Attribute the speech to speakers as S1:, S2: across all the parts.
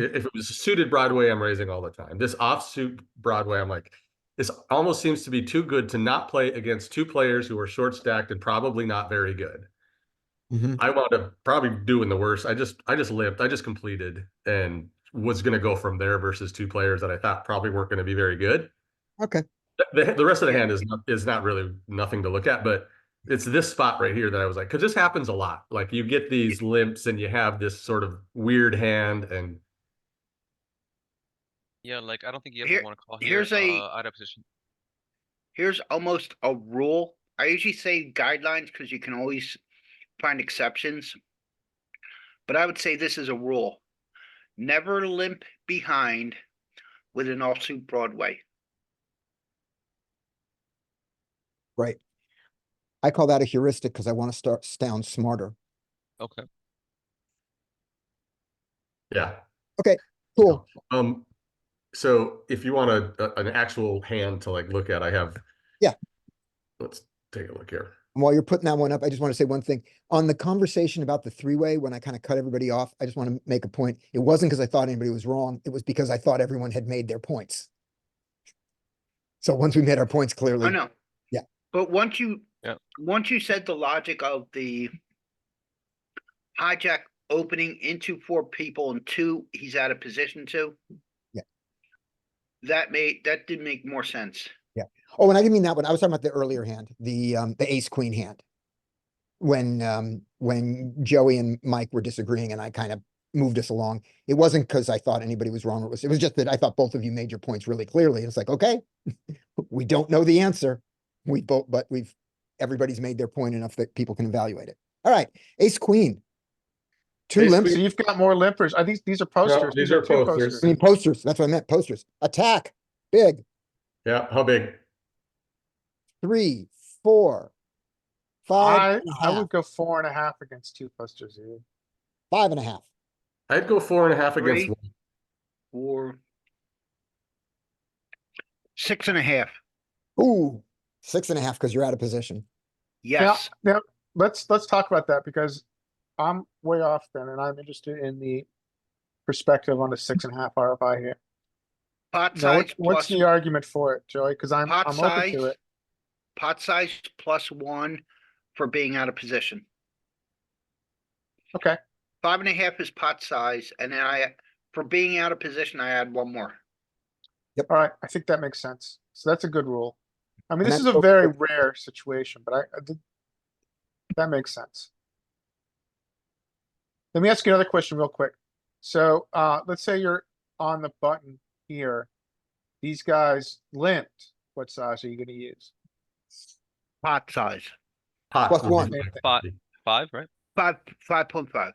S1: If it was suited Broadway, I'm raising all the time. This offsuit Broadway, I'm like, this almost seems to be too good to not play against two players who are short stacked and probably not very good.
S2: Mhm.
S1: I wound up probably doing the worst. I just I just limped. I just completed and was going to go from there versus two players that I thought probably weren't going to be very good.
S2: Okay.
S1: The, the- the rest of the hand is not, is not really nothing to look at, but it's this spot right here that I was like, because this happens a lot. Like you get these limps and you have this sort of weird hand, and
S3: Yeah, like I don't think you
S4: Here-
S3: ever want to call here.
S4: here's a-
S3: uh, out of position.
S4: Here's almost a rule. I usually say guidelines because you can always find exceptions. But I would say this is a rule. Never limp behind with an offsuit Broadway.
S2: Right. I call that a heuristic because I want to start sound smarter.
S3: Okay.
S1: yeah.
S2: Cool.
S1: Um, so if you want a, a- an actual hand to like look at, I have.
S2: Yeah.
S1: Let's take a look here.
S2: And while you're putting that one up, I just want to say one thing. On the conversation about the three-way, when I kind of cut everybody off, I just want to make a point. It wasn't because I thought anybody was wrong. It was because I thought everyone had made their points. So once we made our points
S4: I
S2: clearly,
S4: know.
S2: Yeah.
S4: Oh, But once you,
S3: Yeah.
S4: once you said the logic of the hijack opening into four people and two, he's out of position two.
S2: Yeah.
S4: That made, that did make more sense.
S2: Oh, and I didn't mean that one. I was talking about the earlier hand, the um, the ace queen hand. When um, when Joey and Mike were disagreeing and I kind of moved us along, it wasn't because I thought anybody was wrong. It was it was just that I thought both of you made your points really clearly. It's like, okay, we don't know the answer. We both, but we've everybody's made their point enough that people can evaluate it. All right, ace queen. Two
S5: Hey,
S2: limps.
S5: So you've got more limpers. I think these are posters.
S1: these are
S5: two
S1: posters.
S2: I mean posters. That's what I meant. Posters. Attack. Big.
S1: Yeah, how big?
S2: Three. Four. Five.
S5: I,
S2: and a
S5: I
S2: half.
S5: would go four and a half against two posters. dude.
S2: Five and a half.
S1: I'd go four and a half against
S4: Three.
S1: one.
S4: Four. Six and a half.
S2: Ooh, six and a half because you're out of position.
S4: Yes,
S5: Now, let's, let's talk about that because I'm way off then and I'm interested in the perspective on the six and a half RFI here.
S4: pot
S5: Now,
S4: size
S5: what's, what's
S4: plus,
S5: the argument for it, Joey? Cause I'm,
S4: pot
S5: I'm open to
S4: size.
S5: it.
S4: Pot size plus one for being out of position.
S5: Okay.
S4: Five and a half is pot size, and then I, for being out of position, I add one more.
S5: All right. I think that makes sense. So that's a good rule. I mean,
S2: And
S5: this is
S2: that's
S5: a
S2: okay.
S5: very rare situation, but I, I did, that makes sense. Let me ask you another question real quick. So, uh, let's say you're on the button here. These guys limped. What size are you gonna use?
S4: Pot size,
S1: Pot
S2: Plus
S1: would be
S2: one.
S1: my-
S3: Five, five, right?
S4: five, five point five.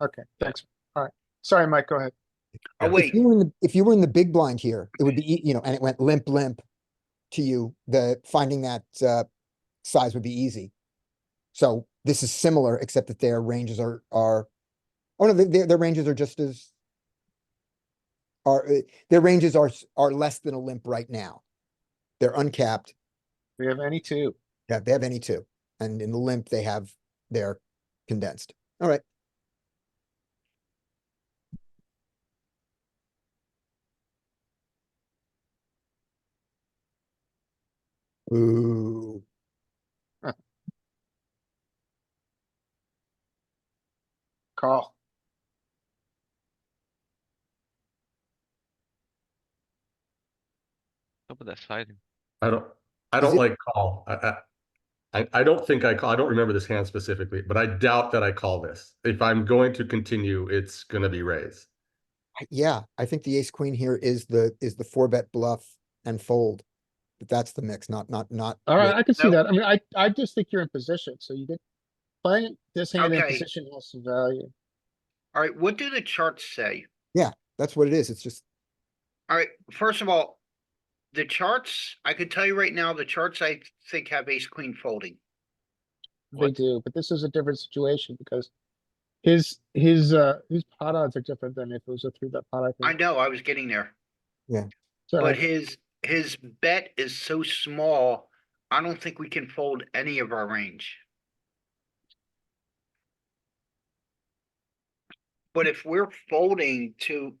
S5: Okay, thanks. All right. Sorry, Mike, go ahead.
S4: Oh,
S1: Yeah.
S4: wait,
S2: If you were in the, if you were in the big blind here, it would be, ea- you know, and it went limp, limp to you, the, finding that, uh, size would be easy. So this is similar, except that their ranges are, are, oh no, their, their ranges are just as are, uh, their ranges are, s- are less than a limp right now. They're uncapped.
S5: Do you have any two?
S2: Yeah, they have any two. And in the limp, they have, they're condensed. All right. Ooh.
S5: Call.
S3: Don't put that side in.
S1: I don't, I
S2: Is
S1: don't
S2: it-
S1: like call. I, I, I, I don't think I call, I don't remember this hand specifically, but I doubt that I call this. If I'm going to continue, it's gonna be raised.
S2: I- Yeah, I think the ace queen here is the, is the four bet bluff and fold. But that's the mix, not, not, not.
S5: All right, I can see
S4: No.
S5: that. I mean, I, I just think you're in position, so you did. Playing this hand in
S4: Okay.
S5: position has some value.
S4: alright, what do the charts say?
S2: That's what it is. It's just,
S4: Alright, first of all, the charts, I could tell you right now, the charts I think have ace queen folding.
S5: They
S3: What?
S5: do, but this is a different situation because his, his, uh, his pot odds are different than if it was a three bet pot, I
S4: I
S5: think.
S4: know, I was getting there.
S5: So
S4: But his, his bet is so small, I don't think we can fold any of our range. But if we're folding to